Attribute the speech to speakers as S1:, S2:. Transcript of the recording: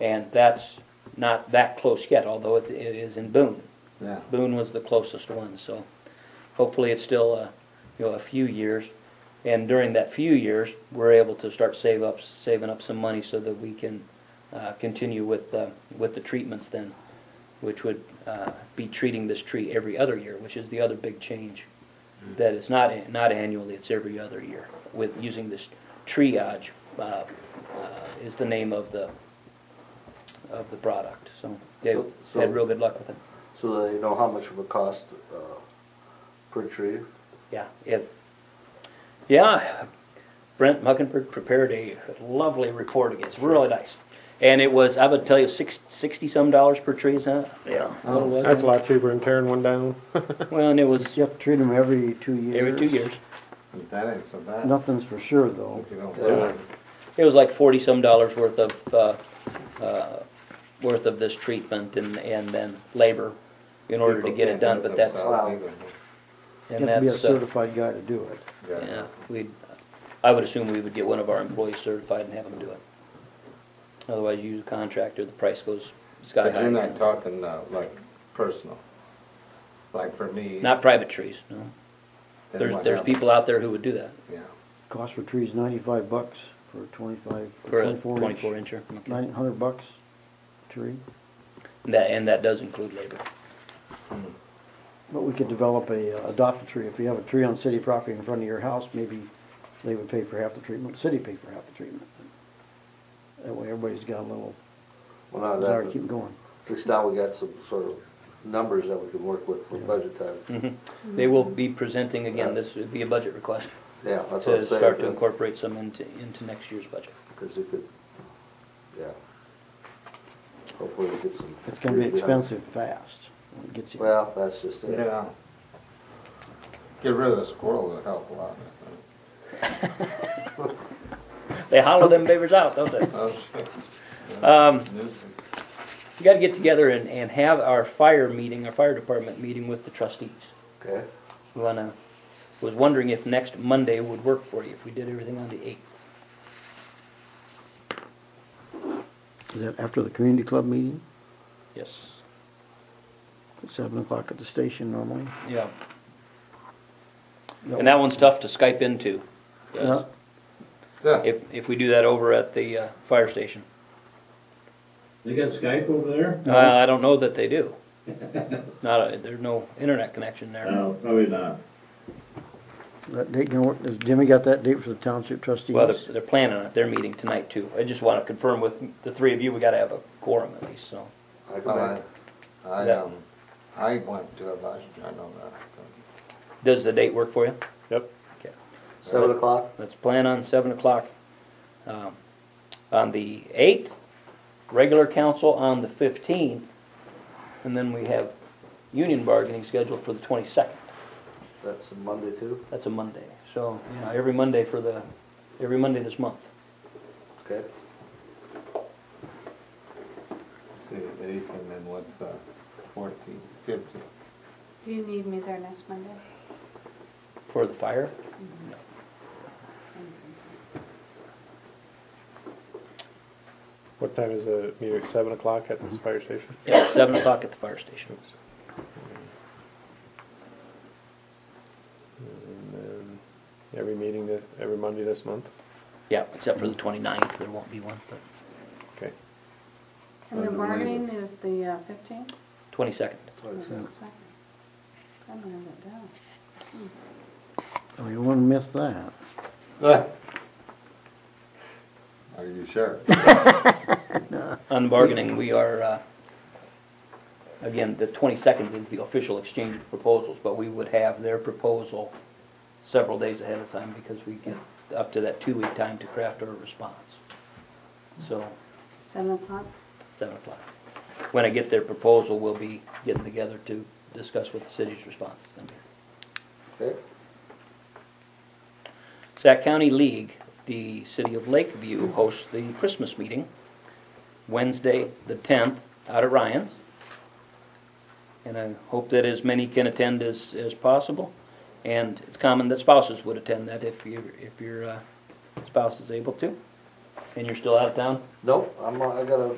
S1: And that's not that close yet, although it, it is in Boone.
S2: Yeah.
S1: Boone was the closest one, so hopefully it's still, uh, you know, a few years. And during that few years, we're able to start save up, saving up some money so that we can, uh, continue with, uh, with the treatments then, which would, uh, be treating this tree every other year, which is the other big change.
S2: Mm-hmm.
S1: That it's not, not annually, it's every other year with using this triage, uh, uh, is the name of the, of the product. So they
S2: So- so-
S1: had real good luck with it.
S2: So they know how much it would cost uh, per tree.
S1: Yeah, it, yeah, Brent Muckenberg prepared a lovely report against, really nice. And it was, I would tell you, six, sixty-some dollars per tree, is that? Yeah.
S3: Oh,
S4: That's a lot cheaper than tearing one down.
S1: Well, and it was
S3: You have to treat them every two years.
S1: every two years.
S5: That ain't so bad.
S3: Nothing's for sure, though.
S5: If you don't
S2: Yeah.
S5: live
S1: It was like forty-some dollars worth of, uh, uh, worth of this treatment and, and then labor in order to
S5: People
S1: get it
S5: can't
S1: done,
S5: do it
S1: but that's,
S5: themselves
S2: Wow.
S5: either.
S3: You
S1: and
S3: have to be a
S1: that's, uh,
S3: certified guy to do it.
S1: yeah, we, I would assume we would get one of our employees certified and have them do it. Otherwise, you use a contractor, the price goes sky high.
S5: But you're not talking, uh, like, personal, like for me.
S1: Not private trees, no.
S5: then
S1: There's,
S5: what
S1: there's
S5: happened?
S1: people out there who would do that
S5: Yeah,
S3: Cost for trees ninety-five bucks for twenty-five,
S1: for a
S3: twenty-four inch.
S1: twenty-four incher. Okay.
S3: Nine hundred bucks tree.
S1: And that, and that does include labor. Hmm.
S3: But we could develop a, uh, adopt a tree. If you have a tree on city property in front of your house, maybe they would pay for half the treatment, the city pay for half the treatment. That way everybody's got a little
S2: Well, not
S3: desire to
S2: that,
S3: keep
S2: but
S3: going.
S2: at least now we got some sort of numbers that we can work with for budget
S3: Mm.
S2: time.
S1: Mm-hmm. They will be presenting again, this would be a budget request
S2: Yeah, that's what
S1: to
S2: I'm
S1: start to
S2: saying,
S1: incorporate some into, into next year's budget.
S2: because we could, yeah. Hopefully we get some.
S3: It's gonna be
S2: trees behind.
S3: expensive fast. when it gets here.
S2: Well, that's just it.
S5: yeah. Get rid of the squirrel would help a lot, I think.
S1: They hollow them beavers out, don't they?
S5: Oh, shit.
S1: Um,
S5: Nuisance.
S1: we gotta get together and, and have our fire meeting, our fire department meeting with the trustees.
S2: Okay,
S1: We wanna, was wondering if next Monday would work for you, if we did everything on the eighth.
S3: Is that after the community club meeting?
S1: Yes,
S3: At seven o'clock at the station normally?
S1: yeah. And that one's tough to Skype into.
S3: Yeah.
S5: Yeah,
S1: if, if we do that over at the uh, fire station.
S6: They got Skype over there?
S1: Uh, I don't know that they do. It's not, a- there's no internet connection there.
S6: No, probably not.
S3: That date gonna work, has Jimmy got that date for the township trustees?
S1: Well, they're, they're planning on it, they're meeting tonight too. I just want to confirm with the three of you, we got to have a quorum at least, so.
S2: I come
S5: well,
S2: back.
S5: I, I,
S1: Yeah.
S5: um, I went to it last year, I know that.
S1: Does the date work for you?
S4: Yep.
S2: Seven o'clock,
S1: Let's plan on seven o'clock. um, On the eighth, regular council on the fifteenth, and then we have union bargaining scheduled for the twenty-second.
S2: that's Monday too,
S1: That's a Monday, so, you know, every Monday for the, every Monday this month.
S2: okay?
S5: See, eighth and then what's, uh, fourteen, fifteen?
S7: Do you need me there next Monday?
S1: For the fire?
S4: What time is the meeting? At Seven o'clock at
S3: Mm-hmm.
S4: this fire station?
S1: Yeah, seven o'clock at the fire station.
S4: And then every meeting that, every Monday this month?
S1: Yeah, except for the 29th, there won't be one, but
S4: Okay.
S7: And the
S5: Under
S7: bargaining
S5: labor.
S7: is the uh, fifteenth?
S1: twenty-second.
S2: Twenty-six.
S7: I don't have that down. Hmm.
S3: Oh, you wouldn't miss that.
S5: Ah. Are you sure?
S1: On bargaining, we are, uh, again, the twenty-second is the official exchange of proposals, but we would have their proposal several days ahead of time because we get up to that two-week time to craft our response. So,
S7: Seven o'clock?
S1: seven o'clock. When I get their proposal, we'll be getting together to discuss what the city's response is gonna be.
S2: Okay,
S1: Sac County League, the city of Lakeview hosts the Christmas meeting, Wednesday, the 10th, out at Ryan's. And I hope that as many can attend as, as possible. And it's common that spouses would attend that if your, if your uh, spouse is able to. And you're still out of town?
S2: nope, I'm, I gotta